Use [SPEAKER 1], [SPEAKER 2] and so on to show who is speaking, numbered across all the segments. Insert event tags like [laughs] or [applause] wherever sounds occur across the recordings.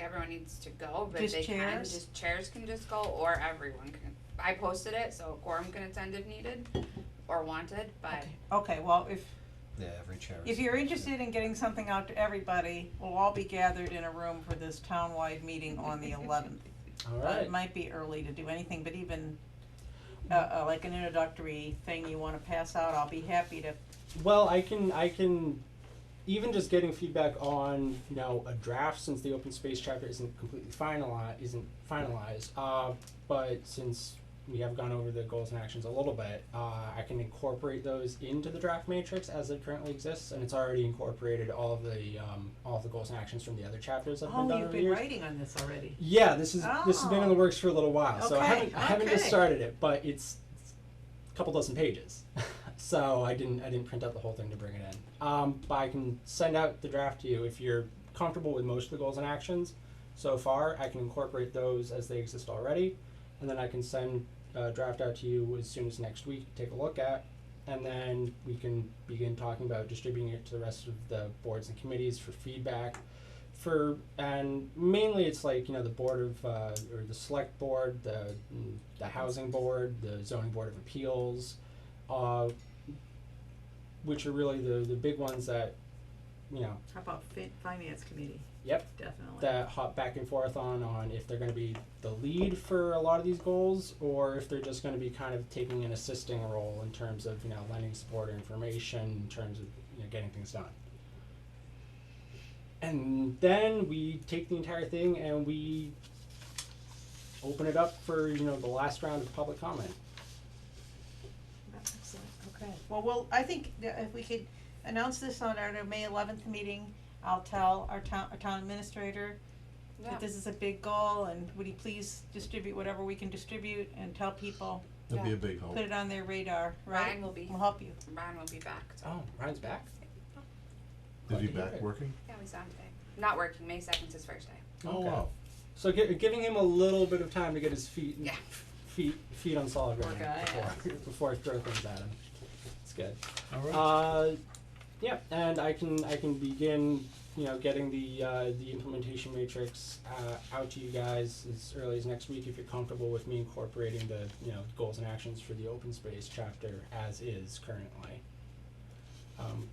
[SPEAKER 1] everyone needs to go, but
[SPEAKER 2] Just
[SPEAKER 1] they can,
[SPEAKER 2] chairs?
[SPEAKER 1] just chairs can just go, or everyone can. I posted it, so quorum can attend if needed, or wanted, but
[SPEAKER 2] Okay, well, if,
[SPEAKER 3] Yeah, every chair.
[SPEAKER 2] if
[SPEAKER 3] is-
[SPEAKER 2] you're interested in getting something out to everybody, we'll all be gathered in a room for this town-wide meeting on the eleventh.
[SPEAKER 4] All
[SPEAKER 2] Uh,
[SPEAKER 4] right.
[SPEAKER 2] It might be early to do anything, but even, uh, uh, like an introductory thing you wanna pass out, I'll be happy to,
[SPEAKER 4] Well, I can I can even just getting feedback on you know a draft since the open space chapter isn't completely finalized isn't finalized. Uh, but since we have gone over the goals and actions a little bit, uh, I can incorporate those into the draft matrix as it currently exists, and it's already incorporated all of the um, all of the goals and actions from the other chapters that have been
[SPEAKER 5] Oh,
[SPEAKER 4] done
[SPEAKER 5] you've
[SPEAKER 4] over the
[SPEAKER 5] been
[SPEAKER 4] years.
[SPEAKER 5] writing on this already.
[SPEAKER 4] Yeah, this is this has been in the
[SPEAKER 2] Oh.
[SPEAKER 4] works for a little while, so I
[SPEAKER 2] Okay,
[SPEAKER 4] haven't I haven't just
[SPEAKER 2] okay.
[SPEAKER 4] started it, but it's, it's a couple dozen pages, [laughs] so I didn't I didn't print out the whole thing to bring it in. Um, but I can send out the draft to you if you're comfortable with most of the goals and actions. So far, I can incorporate those as they exist already, and then I can send a draft out to you as soon as next week. to Take a look at, and then we can begin talking about distributing it to the rest of the boards and committees for feedback for and mainly it's like you know the board of uh, or the select board the mm, the housing board the zoning board of appeals uh, which are really the the big ones that you know
[SPEAKER 5] How about fin- finance committee?
[SPEAKER 4] Yep.
[SPEAKER 5] Definitely.
[SPEAKER 4] that hop back and forth on on if they're going to be the lead for a lot of these goals or if they're just going to be kind of taking an assisting role in terms of you know lending support or information in terms of you know getting things done and then we take the entire thing and we open it up for you know the last round of public comment
[SPEAKER 5] Excellent.
[SPEAKER 2] okay, well, well, I think that if we could announce this on our May eleventh meeting, I'll tell our town, our town administrator,
[SPEAKER 1] yeah.
[SPEAKER 2] that this is a big goal and would you please distribute whatever we can distribute and tell people,
[SPEAKER 6] That'd be a big help.
[SPEAKER 2] put it on their radar, right?
[SPEAKER 1] Ryan will be
[SPEAKER 2] We'll help you.
[SPEAKER 1] Ryan will be back. So.
[SPEAKER 4] oh ryan's back
[SPEAKER 6] Is
[SPEAKER 4] Glad
[SPEAKER 6] he
[SPEAKER 4] to hear
[SPEAKER 6] back
[SPEAKER 4] it.
[SPEAKER 6] working?
[SPEAKER 1] Yeah, we saw him today. Not working. May second's his first day.
[SPEAKER 2] [laughs]
[SPEAKER 6] Oh,
[SPEAKER 4] Okay.
[SPEAKER 6] wow.
[SPEAKER 4] so gi- giving him a little bit of time to get his feet
[SPEAKER 1] Yeah.
[SPEAKER 4] feet feet on solid
[SPEAKER 1] Poor
[SPEAKER 4] ground
[SPEAKER 1] guy,
[SPEAKER 4] before, before [laughs] I throw things at him. It's good.
[SPEAKER 6] All right.
[SPEAKER 4] Uh, yeah, and I can I can begin you know getting the uh, the implementation matrix uh, out to you guys as early as next week if you're comfortable with me incorporating the you know goals and actions for the open space chapter as is currently. Um,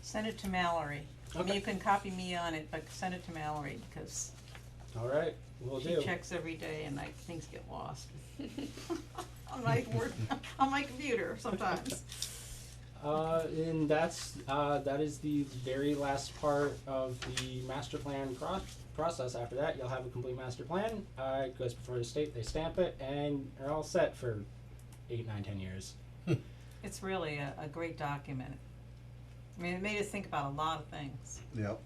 [SPEAKER 2] Send it to Mallory. I mean,
[SPEAKER 4] Okay.
[SPEAKER 2] you can copy me on it, but send it to Mallory because
[SPEAKER 4] all right, we'll
[SPEAKER 2] she
[SPEAKER 4] do.
[SPEAKER 2] checks every day and like things get lost. [laughs] On my word, [laughs] on my computer
[SPEAKER 4] [laughs]
[SPEAKER 2] sometimes.
[SPEAKER 4] Uh, and that's uh, that is the very last part of the master plan pro- process. After that, you'll have a complete master plan. Uh, it goes before the state; they stamp it, and you're all set for eight, nine, ten years.
[SPEAKER 2] It's really a, a great document. I mean, it made us think about a lot of things.
[SPEAKER 6] Yep.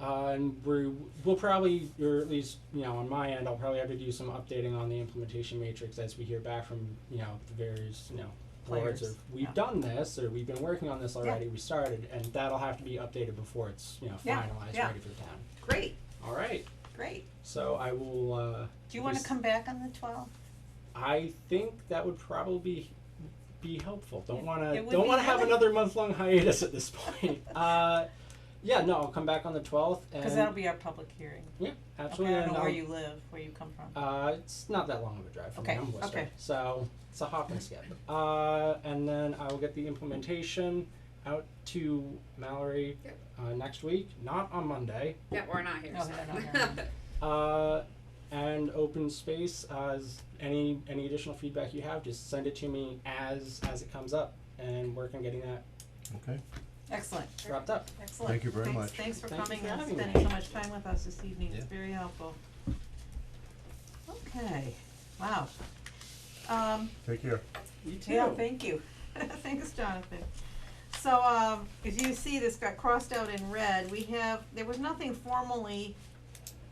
[SPEAKER 4] Uh, and we're, we'll probably, or at least you know, on my end, I'll probably have to do some updating on the implementation matrix as we hear back from you know the various you know boards.
[SPEAKER 2] Players,
[SPEAKER 4] Or we've
[SPEAKER 2] yeah.
[SPEAKER 4] done this, or we've been working on this already. We started, and that'll have to be updated before it's you know
[SPEAKER 2] Yeah,
[SPEAKER 4] finalized,
[SPEAKER 2] yeah.
[SPEAKER 4] ready for the town.
[SPEAKER 2] Great,
[SPEAKER 4] All right.
[SPEAKER 2] great.
[SPEAKER 4] So I will. Uh,
[SPEAKER 2] Do you wanna
[SPEAKER 4] just-
[SPEAKER 2] come back on the twelfth?
[SPEAKER 4] I think that would probably be helpful. Don't want
[SPEAKER 2] It
[SPEAKER 4] to.
[SPEAKER 2] would
[SPEAKER 4] Don't
[SPEAKER 2] be
[SPEAKER 4] want to have
[SPEAKER 2] helpful.
[SPEAKER 4] another month long hiatus at this
[SPEAKER 2] [laughs]
[SPEAKER 4] point. uh, yeah, no, I'll come back on the twelfth.
[SPEAKER 2] Cause that'll be our public hearing.
[SPEAKER 4] yeah,
[SPEAKER 2] Okay,
[SPEAKER 4] Uh, absolutely.
[SPEAKER 2] I don't
[SPEAKER 4] and
[SPEAKER 2] know where
[SPEAKER 4] I'll-
[SPEAKER 2] you live, where you come from.
[SPEAKER 4] Uh, it's not that long of a drive from
[SPEAKER 2] Okay,
[SPEAKER 4] me. I'm Worcester,
[SPEAKER 2] okay.
[SPEAKER 4] so it's a hop and skip. Uh, and then I will get the implementation out to Mallory
[SPEAKER 1] Yep.
[SPEAKER 4] uh, next week, not on Monday.
[SPEAKER 1] Yeah, we're not here.
[SPEAKER 2] No,
[SPEAKER 1] so.
[SPEAKER 2] they're
[SPEAKER 1] [laughs]
[SPEAKER 2] not here.
[SPEAKER 4] Uh, and open space as any any additional feedback you have, just send it to me as as it comes up, and work on getting that
[SPEAKER 6] Okay.
[SPEAKER 2] Excellent,
[SPEAKER 4] wrapped up.
[SPEAKER 2] excellent.
[SPEAKER 6] Thank you very
[SPEAKER 2] Thanks-
[SPEAKER 6] much.
[SPEAKER 2] Thanks for
[SPEAKER 4] Thank you
[SPEAKER 2] coming
[SPEAKER 4] for
[SPEAKER 2] and
[SPEAKER 4] having me.
[SPEAKER 2] spending so much time with us this evening, it's
[SPEAKER 6] Yeah.
[SPEAKER 2] very helpful. Okay, wow. Um,
[SPEAKER 6] Take care.
[SPEAKER 4] You too.
[SPEAKER 2] yeah, thank you, [laughs] thanks Jonathan. So, um, if you see this got crossed out in red, we have, there was nothing formally,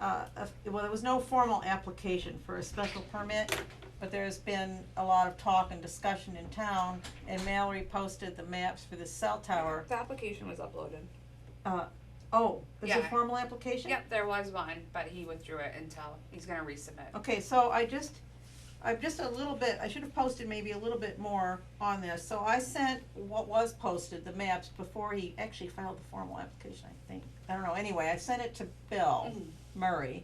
[SPEAKER 2] uh, of- well, there was no formal application for a special permit, but there's been a lot of talk and discussion in town, and Mallory posted the maps for the cell tower
[SPEAKER 1] The application was uploaded.
[SPEAKER 2] Uh, oh, is it
[SPEAKER 1] Yeah.
[SPEAKER 2] formal application?
[SPEAKER 1] Yep, there was one, but he withdrew it until he's gonna resubmit.
[SPEAKER 2] Okay, so I just, I'm just a little bit, I should have posted maybe a little bit more on this, so I sent what was posted, the maps, before
[SPEAKER 1] Mm-hmm.
[SPEAKER 2] he actually filed the formal application, I think. I don't know, anyway, I sent it to Bill Murray,